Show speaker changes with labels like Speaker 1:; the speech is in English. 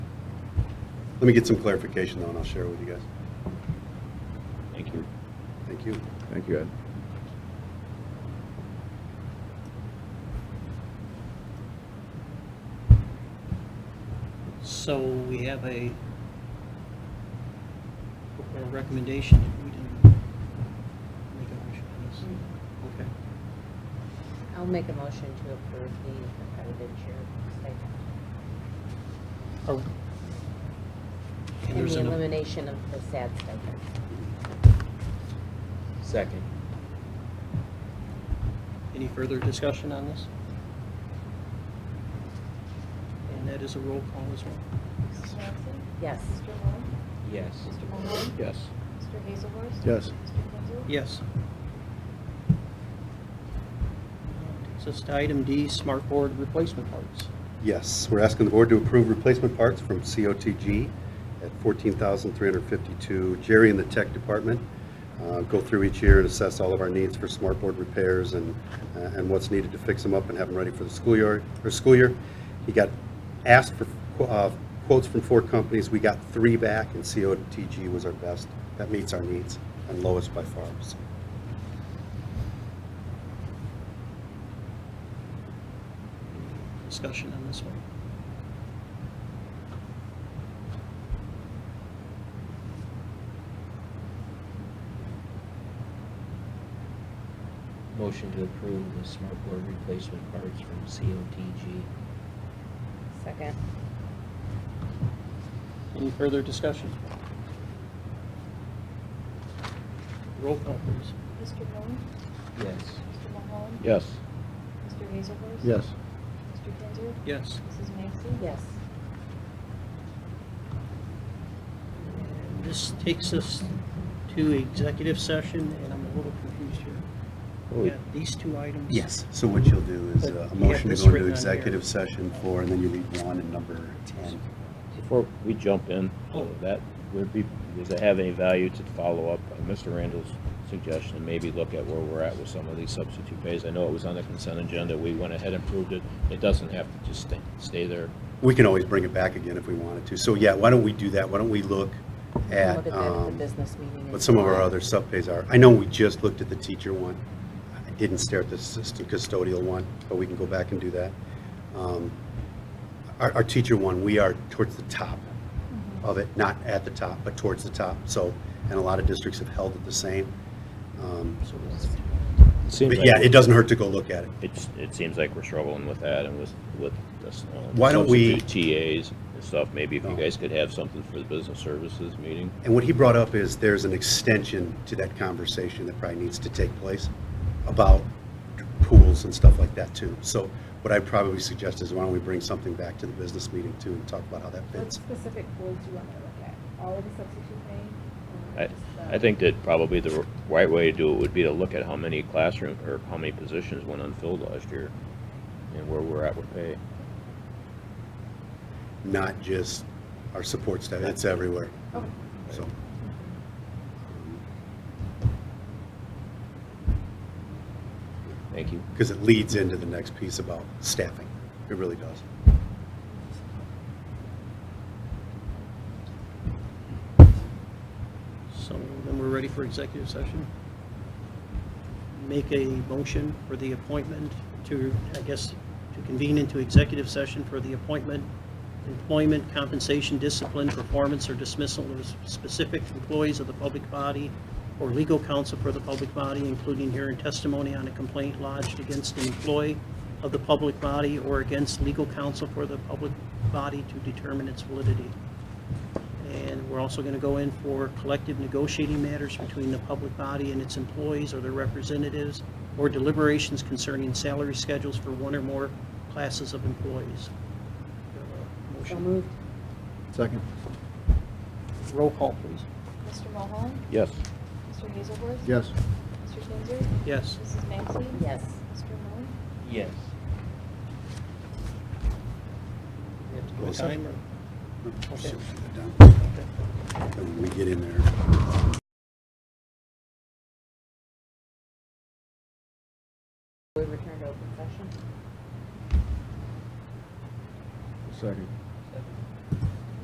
Speaker 1: Let me get some clarification though, and I'll share it with you guys.
Speaker 2: Thank you.
Speaker 1: Thank you.
Speaker 3: Thank you, Ed.
Speaker 4: So we have a, a recommendation. We didn't make a motion on this. Okay.
Speaker 5: I'll make a motion to approve the competitive cheer stipend.
Speaker 4: Are- And
Speaker 5: And
Speaker 4: there's
Speaker 5: the
Speaker 4: an,
Speaker 5: elimination of the SAD stipend.
Speaker 2: Second.
Speaker 4: any further discussion on this? And that is a roll call as well.
Speaker 6: Mrs. Johnson?
Speaker 5: Yes.
Speaker 6: Mr. Moore?
Speaker 2: Yes.
Speaker 6: Mr. Mahoney?
Speaker 3: Yes.
Speaker 6: Mr. Hazelworth?
Speaker 3: Yes.
Speaker 6: Mr. Kinzel?
Speaker 4: Yes. Takes us to item D, smart board replacement parts.
Speaker 1: Yes, we're asking the board to approve replacement parts from COTG at $14,352. Jerry and the tech department uh, go through each year and assess all of our needs for smart board repairs and, uh, and what's needed to fix them up and have them ready for the school year, or school year. He got asked for qu- uh, quotes from four companies, we got three back, and COTG was our best. That meets our needs and lowest by far, so.
Speaker 4: Discussion on this one.
Speaker 2: Motion to approve the smart board replacement parts from COTG.
Speaker 5: Second.
Speaker 4: Any further discussion? Roll call, please.
Speaker 6: Mr. Moore?
Speaker 2: Yes.
Speaker 6: Mr. Mahoney?
Speaker 3: Yes.
Speaker 6: Mr. Hazelworth?
Speaker 3: Yes.
Speaker 6: Mr. Kinzel?
Speaker 4: Yes.
Speaker 6: Mrs. Maxey?
Speaker 5: Yes.
Speaker 4: This takes us to executive session, and I'm a little confused here. We
Speaker 3: Holy-
Speaker 4: got these two items.
Speaker 1: Yes, so what you'll do is uh, a
Speaker 4: But you have
Speaker 1: motion to
Speaker 4: this
Speaker 1: go into
Speaker 4: written on here.
Speaker 1: executive session for, and then you read one and number 10.
Speaker 3: Before we jump in, so that would be, does it have any value to follow up on Mr. Randall's suggestion and maybe look at where we're at with some of these substitute pays? I know it was on the consent agenda. We went ahead and approved it. It doesn't have to just stay, stay there.
Speaker 1: We can always bring it back again if we wanted to. So yeah, why don't we do that? Why don't we look
Speaker 5: We can
Speaker 1: at
Speaker 5: Look at that at the
Speaker 1: um,
Speaker 5: business meeting. in
Speaker 1: what some of our
Speaker 5: July.
Speaker 1: other sub-pays are? I know we just looked at the teacher one. I didn't stare at the assistant custodial one, but we can go back and do that. Um, Our, our teacher one, we are towards the top
Speaker 4: Mm-hmm.
Speaker 1: of it, not at the top, but towards the top. So, and a lot of districts have held it the same. Um,
Speaker 4: So it's-
Speaker 3: It seems
Speaker 1: But
Speaker 3: like
Speaker 1: yeah, it doesn't hurt to go look at it.
Speaker 3: It's, it seems like we're struggling with that and with, with this. uh,
Speaker 1: Why don't we- Oh.
Speaker 3: substitute TAs and stuff. Maybe if you guys could have something for the business services meeting.
Speaker 1: And what he brought up is there's an extension to that conversation that probably needs to take place about pools and stuff like that too. So what I probably suggest is why don't we bring something back to the business meeting too and talk about how that
Speaker 7: What
Speaker 1: fits?
Speaker 7: specific goals do you want me to look at? All of the substitute pay? or
Speaker 3: I,
Speaker 7: just the-
Speaker 3: I think that probably the right way to do it would be to look at how many classroom, or how many positions went unfilled last year, and where we're at with pay.
Speaker 1: Not just our support staff, it's everywhere.
Speaker 7: Okay.
Speaker 1: So,
Speaker 3: Thank you.
Speaker 1: because it leads into the next piece about staffing. It really does.
Speaker 4: So then we're ready for executive session. Make a motion for the appointment to, I guess, to convene into executive session for the appointment, employment, compensation, discipline, performance, or dismissal of specific employees of the public body or legal counsel for the public body, including hearing testimony on a complaint lodged against an employee of the public body or against legal counsel for the public body to determine its validity. And we're also going to go in for collective negotiating matters between the public body and its employees or their representatives, or deliberations concerning salary schedules for one or more classes of employees. Do you have a
Speaker 5: So
Speaker 4: Motion.
Speaker 5: moved.
Speaker 3: Second.
Speaker 4: Roll call, please.
Speaker 6: Mr. Mahoney?
Speaker 3: Yes.
Speaker 6: Mr. Hazelworth?
Speaker 3: Yes.
Speaker 6: Mr. Kinzel?
Speaker 4: Yes.
Speaker 6: Mrs. Maxey?
Speaker 5: Yes.
Speaker 6: Mr. Moore?
Speaker 2: Yes.
Speaker 4: We have to do a
Speaker 1: Roll call.
Speaker 4: timer. Okay.
Speaker 1: And we get in there.
Speaker 5: We return to open session.
Speaker 3: Second.